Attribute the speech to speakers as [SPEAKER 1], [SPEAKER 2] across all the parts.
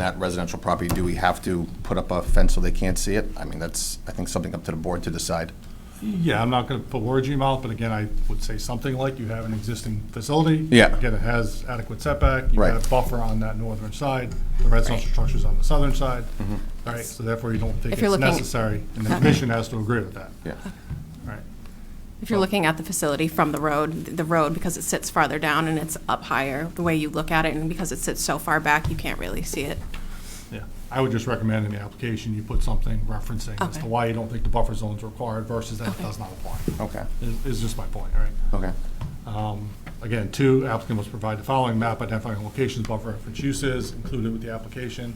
[SPEAKER 1] that residential property, do we have to put up a fence so they can't see it? I mean, that's, I think, something up to the board to decide.
[SPEAKER 2] Yeah, I'm not going to put words in your mouth, but again, I would say something like, you have an existing facility.
[SPEAKER 1] Yeah.
[SPEAKER 2] Again, it has adequate setback. You've
[SPEAKER 1] Right.
[SPEAKER 2] got a buffer on that northern side, the residential structure's on the southern side.
[SPEAKER 1] Mm-hmm.
[SPEAKER 2] All right, so therefore you don't think
[SPEAKER 3] If you're
[SPEAKER 2] it's
[SPEAKER 3] looking-
[SPEAKER 2] necessary, and the commission has to agree with that.
[SPEAKER 1] Yeah.
[SPEAKER 2] All right.
[SPEAKER 3] If you're looking at the facility from the road, the road, because it sits farther down and it's up higher, the way you look at it, and because it sits so far back, you can't really see it.
[SPEAKER 2] Yeah, I would just recommend in the application, you put something referencing as to
[SPEAKER 3] Okay.
[SPEAKER 2] why you don't think the buffer zone's required versus that it does not apply.
[SPEAKER 1] Okay,
[SPEAKER 2] Is- Is just my point, all right?
[SPEAKER 1] okay.
[SPEAKER 2] Again, two, applicant must provide the following map identifying locations, buffer reference uses included with the application.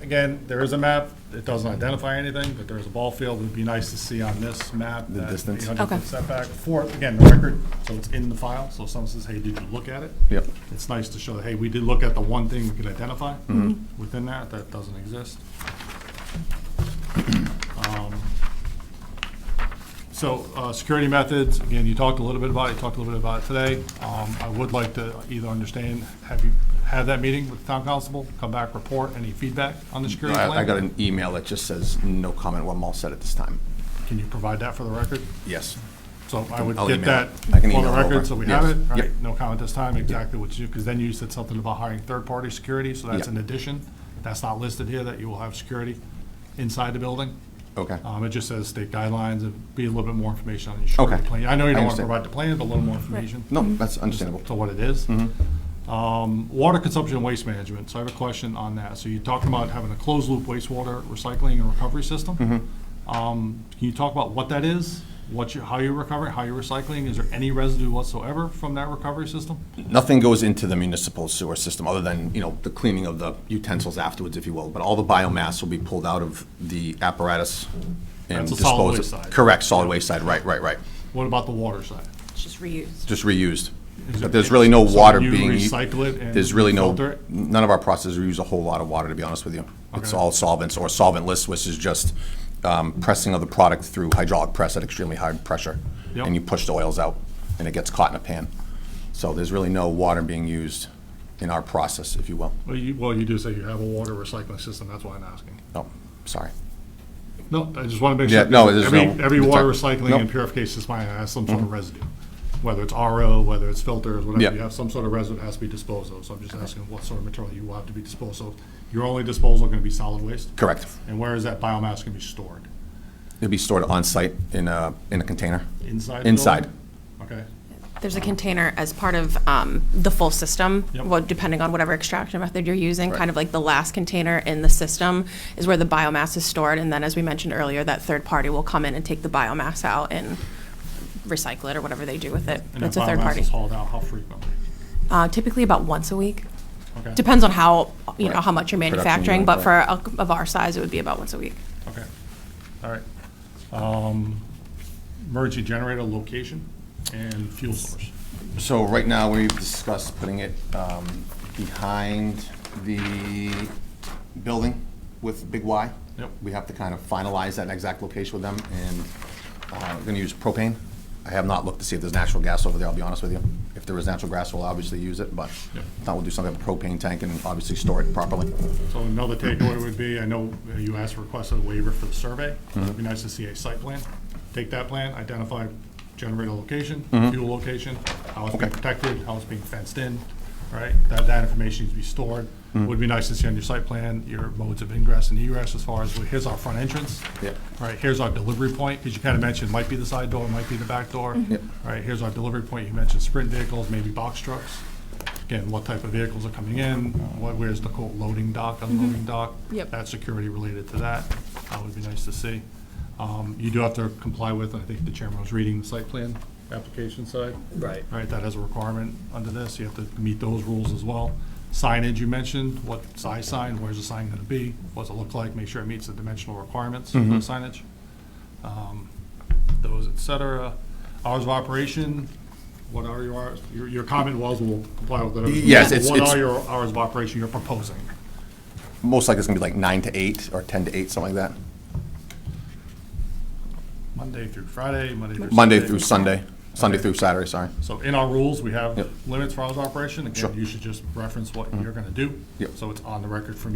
[SPEAKER 2] Again, there is a map, it doesn't identify anything, but there is a ball field, it'd be nice to see on this map.
[SPEAKER 1] The
[SPEAKER 2] that
[SPEAKER 1] distance.
[SPEAKER 2] 800 foot
[SPEAKER 3] Okay.
[SPEAKER 2] Setback for, again, the record, so it's in the file, so if someone says, hey, did you look at it?
[SPEAKER 1] Yep.
[SPEAKER 2] It's nice to show that, hey, we did look at the one thing we could identify within that, that doesn't exist. So, uh, security methods, again, you talked a little bit about it, you talked a little bit about it today. Um, I would like to either understand, have you had that meeting with the town constable? Come back, report any feedback on the security
[SPEAKER 1] I,
[SPEAKER 2] plan?
[SPEAKER 1] I got an email that just says, no comment, well, I'm all set at this time.
[SPEAKER 2] Can you provide that for the record?
[SPEAKER 1] Yes.
[SPEAKER 2] So I would
[SPEAKER 1] I'll
[SPEAKER 2] get
[SPEAKER 1] email
[SPEAKER 2] that
[SPEAKER 1] it. I can
[SPEAKER 2] for the
[SPEAKER 1] email it over.
[SPEAKER 2] record, so we have
[SPEAKER 1] Yes.
[SPEAKER 2] it,
[SPEAKER 1] Yep.
[SPEAKER 2] right? No comment this time, exactly what you, because then you said something about hiring third-party security, so that's
[SPEAKER 1] Yep.
[SPEAKER 2] an addition. That's not listed here, that you will have security inside the building.
[SPEAKER 1] Okay.
[SPEAKER 2] Um, it just says state guidelines, and be a little bit more information on your security
[SPEAKER 1] Okay.
[SPEAKER 2] plan. I know you
[SPEAKER 1] I
[SPEAKER 2] don't want to
[SPEAKER 1] understand.
[SPEAKER 2] provide the plan, but a little more information.
[SPEAKER 1] No, that's understandable.
[SPEAKER 2] To what it is. Um, Water consumption and waste management, so I have a question on that. So you talked about having a closed-loop wastewater recycling and recovery system. Um, Can you talk about what that is? What you, how you're recovering, how you're recycling? Is there any residue whatsoever from that recovery system?
[SPEAKER 1] Nothing goes into the municipal sewer system, other than, you know, the cleaning of the utensils afterwards, if you will. But all the biomass will be pulled out of the apparatus and
[SPEAKER 2] That's the
[SPEAKER 1] disposed.
[SPEAKER 2] solid waste
[SPEAKER 1] of-
[SPEAKER 2] side.
[SPEAKER 1] Correct, solid waste side, right, right, right.
[SPEAKER 2] What about the water side?
[SPEAKER 3] It's just reused.
[SPEAKER 1] Just reused.
[SPEAKER 2] Is
[SPEAKER 1] But
[SPEAKER 2] it-
[SPEAKER 1] there's really no
[SPEAKER 2] so
[SPEAKER 1] water
[SPEAKER 2] you
[SPEAKER 1] being.
[SPEAKER 2] recycle it and
[SPEAKER 1] There's really
[SPEAKER 2] filter
[SPEAKER 1] no,
[SPEAKER 2] it?
[SPEAKER 1] none of our processes use a whole lot of water, to be honest with you. It's
[SPEAKER 2] Okay.
[SPEAKER 1] all solvents or solventless, which is just um, pressing of the product through hydraulic press at extremely high pressure.
[SPEAKER 2] Yep.
[SPEAKER 1] And you push the oils out, and it gets caught in a pan. So there's really no water being used in our process, if you will.
[SPEAKER 2] Well, you, well, you do say you have a water recycling system, that's why I'm asking.
[SPEAKER 1] No, Oh, sorry.
[SPEAKER 2] No, I just want to make
[SPEAKER 1] Yeah,
[SPEAKER 2] sure.
[SPEAKER 1] no, there's
[SPEAKER 2] every-
[SPEAKER 1] no-
[SPEAKER 2] Every water
[SPEAKER 1] it's not-
[SPEAKER 2] recycling and
[SPEAKER 1] nope.
[SPEAKER 2] purification plant has some sort of residue, whether it's RO, whether it's filters,
[SPEAKER 1] Yeah.
[SPEAKER 2] whatever. You have some sort of residue that has to be disposed of. So I'm just asking what sort of material you will have to be disposed of. Your only disposal going to be solid waste?
[SPEAKER 1] Correct.
[SPEAKER 2] And where is that biomass going to be stored?
[SPEAKER 1] It'll be stored on-site in a, in a container.
[SPEAKER 2] Inside? the
[SPEAKER 1] Inside.
[SPEAKER 2] building? Okay.
[SPEAKER 3] There's a container as part of um, the full system,
[SPEAKER 2] Yep.
[SPEAKER 3] well, depending on whatever extraction method you're using, kind of like the last container in the system is where the biomass is stored, and then, as we mentioned earlier, that third party will come in and take the biomass out and recycle it or whatever they do with it.
[SPEAKER 2] And
[SPEAKER 3] That's
[SPEAKER 2] that
[SPEAKER 3] a third
[SPEAKER 2] biomass
[SPEAKER 3] party.
[SPEAKER 2] is hauled out, how frequently?
[SPEAKER 3] Uh, Typically about once a week.
[SPEAKER 2] Okay.
[SPEAKER 3] Depends on how, you know,
[SPEAKER 1] Right.
[SPEAKER 3] how much you're
[SPEAKER 1] Production
[SPEAKER 3] manufacturing,
[SPEAKER 1] unit,
[SPEAKER 3] but for, a- of our size, it would be about once a week.
[SPEAKER 2] Okay, all right. Um, Emergency generator location and fuel source.
[SPEAKER 1] So right now, we've discussed putting it um, behind the building with Big Y.
[SPEAKER 2] Yep.
[SPEAKER 1] We have to kind of finalize that exact location with them, and uh, we're gonna use propane. I have not looked to see if there's natural gas over there, I'll be honest with you. If there is natural gas, we'll obviously use it, but
[SPEAKER 2] Yep.
[SPEAKER 1] I will do something with propane tank and obviously store it properly.
[SPEAKER 2] So another takeaway would be, I know you asked for request a waiver for the survey. It'd be nice to see a site plan. Take that plan, identify generator location, fuel location, how it's being
[SPEAKER 1] Okay.
[SPEAKER 2] protected, how it's being fenced in, right? That, that information needs to be stored. Would be nice to see on your site plan, your modes of ingress and egress as far as, well, here's our front entrance.
[SPEAKER 1] Yep.
[SPEAKER 2] All right, here's our delivery point, because you kind of mentioned, might be the side door, might be the back door.
[SPEAKER 1] Yep.
[SPEAKER 2] All right, here's our delivery point. You mentioned sprint vehicles, maybe box trucks. Again, what type of vehicles are coming in, what, where's the quote loading dock, unloading dock?
[SPEAKER 3] Yep.
[SPEAKER 2] That's security related to that. That would be nice to see. Um, You do have to comply with, I think the chairman was reading the site plan application side.
[SPEAKER 4] Right.
[SPEAKER 2] All right, that has a requirement under this. You have to meet those rules as well. Signage you mentioned, what size sign, where's the sign gonna be? What's it look like? Make sure it meets the dimensional requirements for
[SPEAKER 1] Mm-hmm.
[SPEAKER 2] the signage Um, those, et cetera. Hours of operation, what are your hours, your, your comment was we will comply with whatever.
[SPEAKER 1] Yes, it's-
[SPEAKER 2] What
[SPEAKER 1] it's-
[SPEAKER 2] are your hours of operation you're proposing?
[SPEAKER 1] Most likely it's gonna be like nine to eight, or ten to eight, something like that.
[SPEAKER 2] Monday through Friday, Monday through.
[SPEAKER 1] Monday
[SPEAKER 2] Sunday?
[SPEAKER 1] through Sunday, Sunday through Saturday, sorry.
[SPEAKER 2] So in our rules, we have
[SPEAKER 1] Yep.
[SPEAKER 2] limits for hours of operation, again,
[SPEAKER 1] Sure.
[SPEAKER 2] you should just reference what you're gonna do.
[SPEAKER 1] Yep.
[SPEAKER 2] So it's on the record from